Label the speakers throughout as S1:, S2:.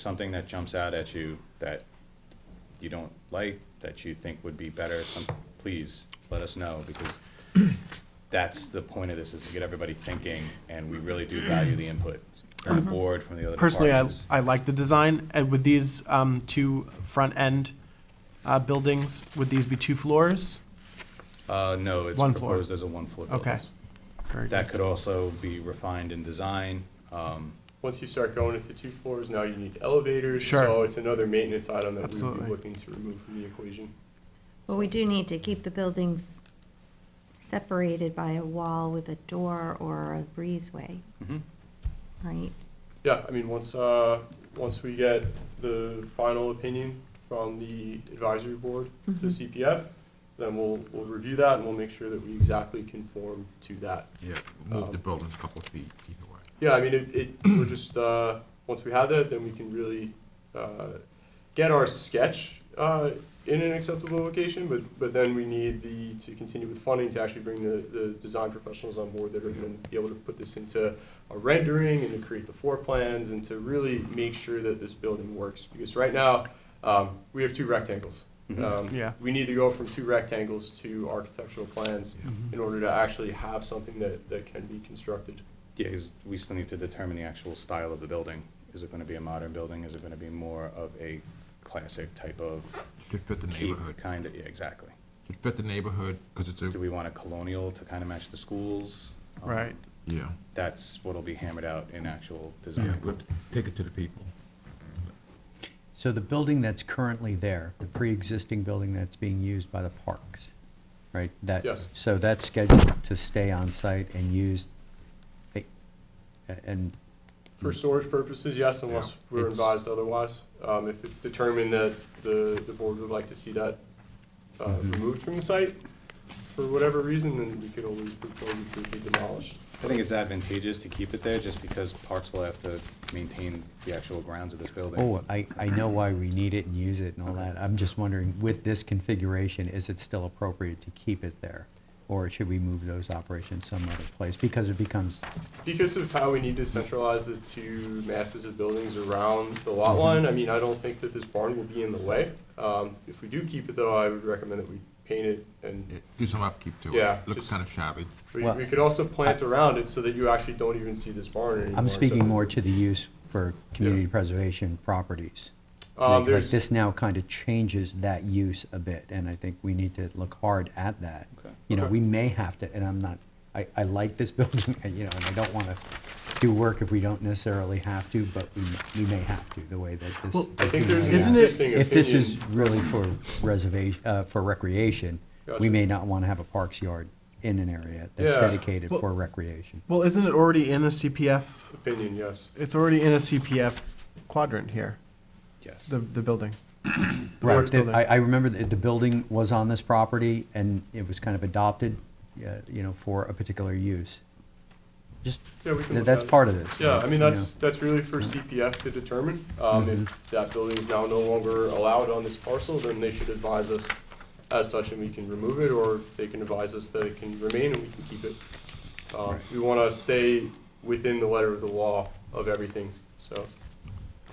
S1: something that jumps out at you that you don't like, that you think would be better, some, please let us know, because that's the point of this, is to get everybody thinking, and we really do value the input from the board, from the other
S2: Mm-hmm. Personally, I,
S1: departments.
S2: I like the design. And would these um, two front end uh, buildings, would these be two floors?
S1: Uh, no, it's
S2: One floor.
S1: proposed as a one-floor building.
S2: Okay. Very
S1: That
S2: good.
S1: could also be refined in design, um,
S3: Once you start going into two floors, now you need elevators,
S2: Sure.
S3: so it's another maintenance item that we would
S2: Absolutely.
S3: be looking to remove from the equation.
S4: Well, we do need to keep the buildings separated by a wall with a door or a breezeway,
S1: mhm.
S4: right?
S3: Yeah, I mean, once, uh, once we get the final opinion from the advisory board to
S4: Mhm.
S3: CPF, then we'll, we'll review that and we'll make sure that we exactly conform to that.
S5: Yeah, move the buildings a couple of feet either way.
S3: Yeah, I mean, it, it, we're just, uh, once we have that, then we can really, uh, get our sketch, uh, in an acceptable location, but, but then we need the, to continue with funding to actually bring the, the design professionals on board that are gonna be able to put this into a rendering and to create the floor plans and to really make sure that this building works, because right now, um, we have two rectangles. Um,
S2: Yeah.
S3: We need to go from two rectangles to architectural plans in order to actually have something that, that can be constructed.
S1: Yeah, 'cause we still need to determine the actual style of the building. Is it gonna be a modern building? Is it gonna be more of a classic type of
S5: Should fit the
S1: keep
S5: neighborhood,
S1: kind of, yeah, exactly.
S5: should fit the neighborhood, because it's
S1: Do
S5: a,
S1: we want a colonial to kind of match the schools? Um,
S2: Right.
S5: yeah.
S1: That's what'll be hammered out in actual
S5: Yeah,
S1: design.
S5: we have to take it to the people.
S6: So the building that's currently there, the pre-existing building that's being used by the parks, right? That-
S3: Yes.
S6: So that's scheduled to stay on site and used, eh, and,
S3: For storage purposes, yes, unless we're
S6: It's-
S3: advised otherwise. Um, if it's determined that the, the board would like to see that, uh,
S6: Mm-hmm.
S3: removed from the site for whatever reason, then we could always propose it to be demolished.
S1: I think it's advantageous to keep it there just because parks will have to maintain the actual grounds of this building.
S6: oh, I, I know why we need it and use it and all that. I'm just wondering, with this configuration, is it still appropriate to keep it there? Or should we move those operations some other place? Because it becomes,
S3: Because of how we need to centralize the two masses of buildings around the
S6: Mm-hmm.
S3: lot line, I mean, I don't think that this barn will be in the way. Um, if we do keep it though, I would recommend that we paint it and
S5: Yeah, Do some upkeep to it.
S3: Yeah,
S5: Looks
S3: just-
S5: kind of shabby.
S3: we,
S6: Well,
S3: we could also plant around it so that you actually don't even see this barn anymore.
S6: I'm
S3: so-
S6: speaking more to the use for community preservation properties.
S3: Um,
S6: Like- Like
S3: there's,
S6: this now kind of changes that use a bit, and I think we need to look hard at that.
S1: Okay.
S6: You know,
S3: Okay.
S6: we may have to, and I'm not, I, I like this building, and, you know, and I don't want to do work if we don't necessarily have to, but we, we may have to, the way that this.
S2: Well,
S3: I think there's an
S2: Isn't it-
S3: existing opinion.
S6: If this is really for reservation, uh, for recreation,
S3: Gotcha.
S6: we may not want to have a parks yard in an area that's
S3: Yeah.
S6: dedicated
S2: Well-
S6: for recreation.
S2: Well, isn't it already in a CPF?
S3: Opinion, yes.
S2: It's already in a CPF quadrant here,
S1: Yes.
S2: the, the building.
S6: Right,
S2: Large
S6: the-
S2: building.
S6: I, I remember that the building was on this property and it was kind of adopted, uh, you know, for a particular use. Just,
S3: Yeah, we can
S6: tha-
S3: look
S6: that's
S3: at it.
S6: part of this.
S3: Yeah, I
S6: you
S3: mean,
S6: know.
S3: that's, that's really for CPF to determine. Um, if that building is now no longer allowed on this parcel, then they should advise us as such and we can remove it, or they can advise us that it can remain and we can keep it. Um, we wanna stay within the letter of the law of everything, so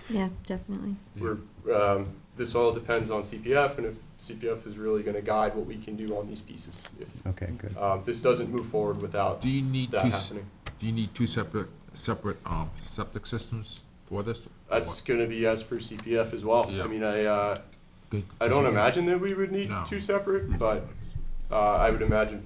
S4: Yeah, definitely.
S3: we're, um, this all depends on CPF and if CPF is really gonna guide what we can do on these pieces. If,
S6: Okay, good.
S3: Um, this doesn't move forward without
S5: Do you need two,
S3: that
S5: s-
S3: happening.
S5: do you need two separate, separate, um, septic systems for this?
S3: That's gonna be as per CPF as well. I
S5: Yeah.
S3: mean, I, uh,
S5: Good.
S3: I don't imagine that we would need
S5: No.
S3: two separate, but uh, I would imagine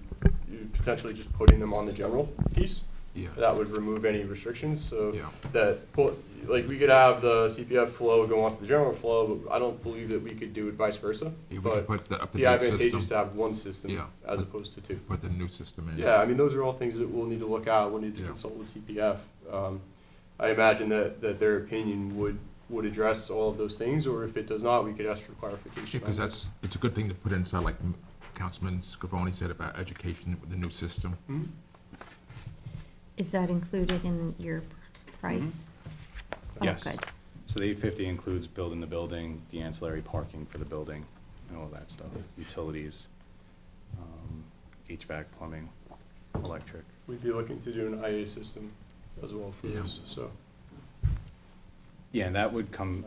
S3: you potentially just putting them on the general piece.
S5: Yeah,
S3: That would remove any restrictions, so
S5: Yeah.
S3: that, well, like, we could have the CPF flow go onto the general flow, but I don't believe that we could do it vice versa.
S5: Yeah, we could
S3: But
S5: put the up to
S3: the
S5: date
S3: advantageous to
S5: system,
S3: have one system
S5: Yeah.
S3: as opposed to two.
S5: put the new system in.
S3: Yeah, I mean, those are all things that we'll need to look at, we'll need to
S5: Yeah.
S3: consult with CPF. Um, I imagine that, that their opinion would, would address all of those things, or if it does not, we could ask for clarification.
S5: Because
S3: on that.
S5: that's, it's a good thing to put inside, like m- Councilman Scavone said about education with the new system.
S3: Mhm.
S4: Is that included in your price? Oh,
S1: Yes.
S4: good.
S1: So the eight fifty includes building the building, the ancillary parking for the building, and all that stuff, utilities, um, HVAC, plumbing, electric.
S3: We'd be looking to do an IA system as well for
S5: Yeah.
S3: this, so.
S1: Yeah, and that would come,